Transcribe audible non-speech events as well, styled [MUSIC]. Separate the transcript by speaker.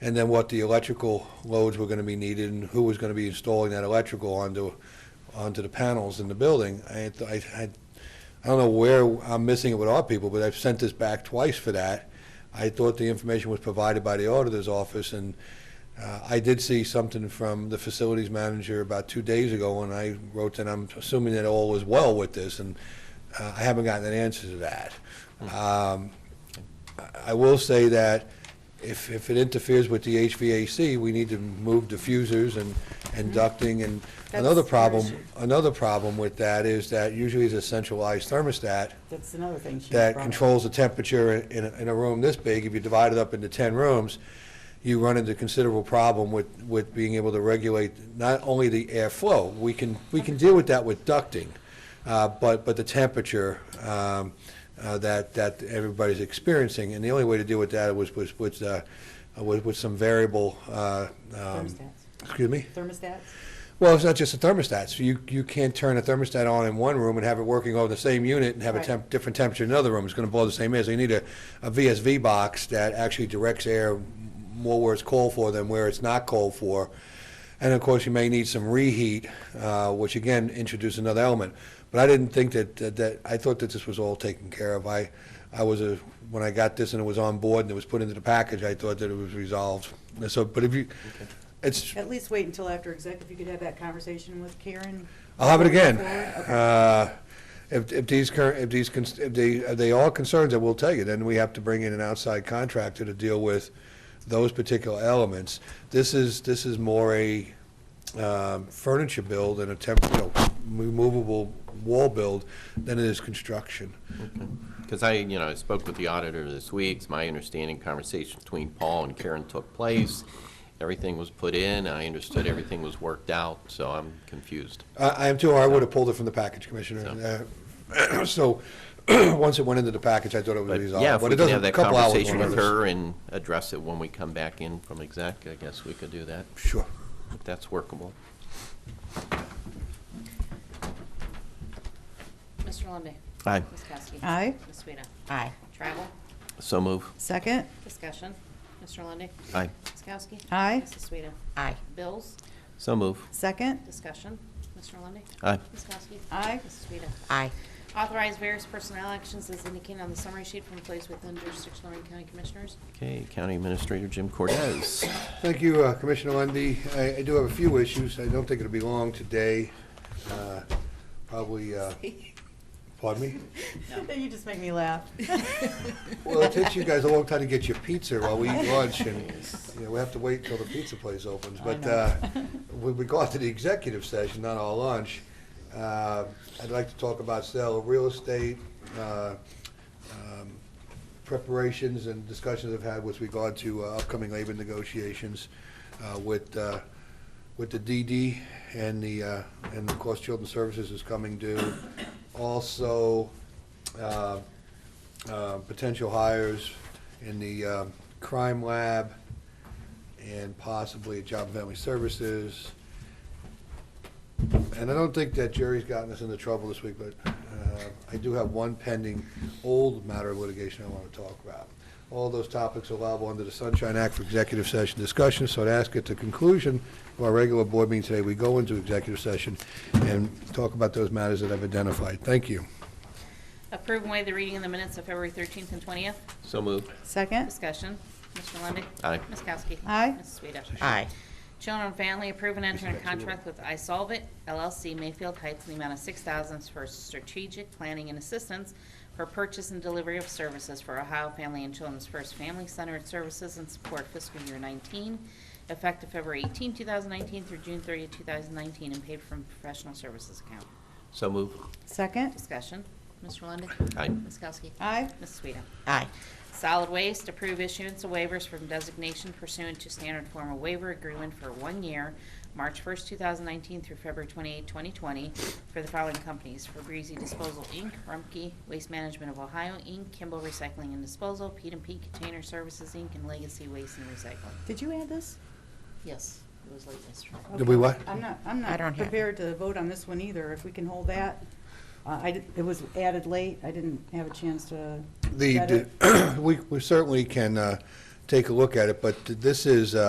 Speaker 1: and then what the electrical loads were going to be needed and who was going to be installing that electrical onto, onto the panels in the building. I, I, I- I don't know where I'm missing it with our people, but I've sent this back twice for that. I thought the information was provided by the auditor's office, and uh, I did see something from the facilities manager about two days ago, and I wrote that I'm assuming that all was well with this, and uh, I haven't gotten an answer to that.
Speaker 2: Hmm.
Speaker 1: Um, I will say that if, if it interferes with the HVAC, we need to move diffusers and, and ducting, and
Speaker 2: Hmm. That's
Speaker 1: another
Speaker 2: their
Speaker 1: problem,
Speaker 2: issue.
Speaker 1: another problem with that is that usually it's a centralized thermostat
Speaker 2: That's another thing she
Speaker 1: that
Speaker 2: brought up.
Speaker 1: controls the temperature in, a- in a room this big, if you divide it up into 10 rooms, you run into considerable problem with, with being able to regulate not only the airflow, we can, we can deal with that with ducting, uh, but, but the temperature um, uh, that, that everybody's experiencing, and the only way to deal with that was, was, was, uh, was with some variable, uh, um,
Speaker 2: Thermostats.
Speaker 1: excuse me?
Speaker 2: Thermostats?
Speaker 1: Well, it's not just the thermostats. You, you can't turn a thermostat on in one room and have it working over the same unit and have a
Speaker 2: Right.
Speaker 1: temp, different temperature in another room. It's gonna blow the same air. So you need a, a VSV box that actually directs air more where it's cold for than where it's not cold for. And of course, you may need some reheat, uh, which again, introduce another element. But I didn't think that, that- that, I thought that this was all taken care of. I, I was a, when I got this and it was on board and it was put into the package, I thought that it was resolved. And So, but if you, it's,
Speaker 2: At least wait until after exec, if you could have that conversation with Karen.
Speaker 1: I'll have it
Speaker 2: before we
Speaker 1: again.
Speaker 2: move forward. Okay.
Speaker 1: Uh, If, if these current, if these, cons- if they, are they all concerns, I will tell you, then we have to bring in an outside contractor to deal with those particular elements. This is, this is more a um, furniture build and a temp, you know, removable wall build than it is construction.
Speaker 3: Because I, you know, I spoke with the auditor this week. It's my understanding conversation between Paul and Karen took place. Everything was put in. I understood everything was worked out, so I'm confused.
Speaker 1: I, I am too, or I would have pulled it from the package, Commissioner. Uh, [CLEARS THROAT] So, [CLEARS THROAT] once it went into the package, I thought it was
Speaker 3: But
Speaker 1: resolved.
Speaker 3: yeah, if
Speaker 1: but
Speaker 3: we
Speaker 1: it
Speaker 3: can
Speaker 1: doesn't.
Speaker 3: have that
Speaker 1: couple hours
Speaker 3: conversation
Speaker 1: won't
Speaker 3: with
Speaker 1: matter.
Speaker 3: her and address it when we come back in from exec, I guess we could do that,
Speaker 1: Sure.
Speaker 3: if that's workable.
Speaker 4: Mr. Lundey.
Speaker 3: Aye.
Speaker 4: Ms. Kowski.
Speaker 2: Aye.
Speaker 4: Ms. Swita.
Speaker 2: Aye.
Speaker 4: Travel,
Speaker 3: So move.
Speaker 2: Second?
Speaker 4: discussion. Mr. Lundey.
Speaker 3: Aye.
Speaker 4: Ms. Kowski.
Speaker 2: Aye.
Speaker 4: Mrs. Swita.
Speaker 2: Aye.
Speaker 4: Bills,
Speaker 3: So move.
Speaker 2: Second?
Speaker 4: discussion. Mr. Lundey.
Speaker 3: Aye.
Speaker 4: Ms. Kowski.
Speaker 2: Aye.
Speaker 4: Mrs. Swita.
Speaker 2: Aye.
Speaker 4: Authorize various personnel actions as indicated on the summary sheet from employees within jurisdiction of Lorraine County Commissioners.
Speaker 3: Okay, County Administrator Jim Cortez.
Speaker 1: Thank you, uh, Commissioner Lundy. I I do have a few issues. I don't think it'll be long today. Uh, Probably, uh, pardon me?
Speaker 2: [LAUGHS] You just make me laugh.
Speaker 1: Well, it takes you guys a long time to get your pizza while we eat lunch,
Speaker 2: [LAUGHS]
Speaker 1: and, you know, we have to wait until the pizza place opens.
Speaker 2: I
Speaker 1: But
Speaker 2: know.
Speaker 1: uh, with regard to the executive session, not our lunch, uh, I'd like to talk about sale of real estate, uh, um, preparations and discussions I've had with regard to uh, upcoming labor negotiations uh, with, uh, with the DD and the, uh, and of course, Children's Services is coming due. Also, uh, uh, potential hires in the uh, crime lab and possibly Job and Family Services. And I don't think that Jerry's gotten us into trouble this week, but uh, I do have one pending old matter of litigation I want to talk about. All those topics allowable under the Sunshine Act for executive session discussion, so to ask at the conclusion of our regular board meeting today, we go into executive session and talk about those matters that I've identified. Thank you.
Speaker 4: Approve and waive the reading of the minutes of February 13th and 20th.
Speaker 3: So move.
Speaker 2: Second?
Speaker 4: Discussion. Mr. Lundey.
Speaker 3: Aye.
Speaker 4: Ms. Kowski.
Speaker 2: Aye.
Speaker 4: Mrs. Swita.
Speaker 5: Aye.
Speaker 4: Children and Family approve and enter a
Speaker 1: Respect to you.
Speaker 4: contract with iSolve It LLC Mayfield Heights in the amount of six thousand for strategic planning and assistance for purchase and delivery of services for Ohio Family and Children's First Family Centered Services and Support fiscal year nineteen, effective February 18, 2019, through June 30, 2019, and paid from professional services account.
Speaker 3: So move.
Speaker 2: Second?
Speaker 4: Discussion. Mr. Lundey.
Speaker 3: Aye.
Speaker 4: Ms. Kowski.
Speaker 2: Aye.
Speaker 4: Ms. Sueda.
Speaker 5: Aye.
Speaker 4: Solid Waste, approve issuance of waivers from designation pursuant to standard form of waiver agreement for one year, March 1st, 2019 through February 28, 2020, for the following companies: for Breezy Disposal, Inc., Rumpke Waste Management of Ohio, Inc., Kimball Recycling and Disposal, Pete and Pete Container Services, Inc., and Legacy Waste and Recycling.
Speaker 2: Did you add this?
Speaker 4: Yes, it was late yesterday.
Speaker 1: Did we what?
Speaker 2: I'm not, I'm
Speaker 5: I
Speaker 2: not
Speaker 5: don't have it.
Speaker 2: prepared to vote on this one either, if we can hold that. Uh, I, did- it was added late, I didn't have a chance to.
Speaker 1: The,
Speaker 2: vet
Speaker 1: [CLEARS THROAT]
Speaker 2: it.
Speaker 1: the- we we certainly can uh, take a look at it, but this is, uh,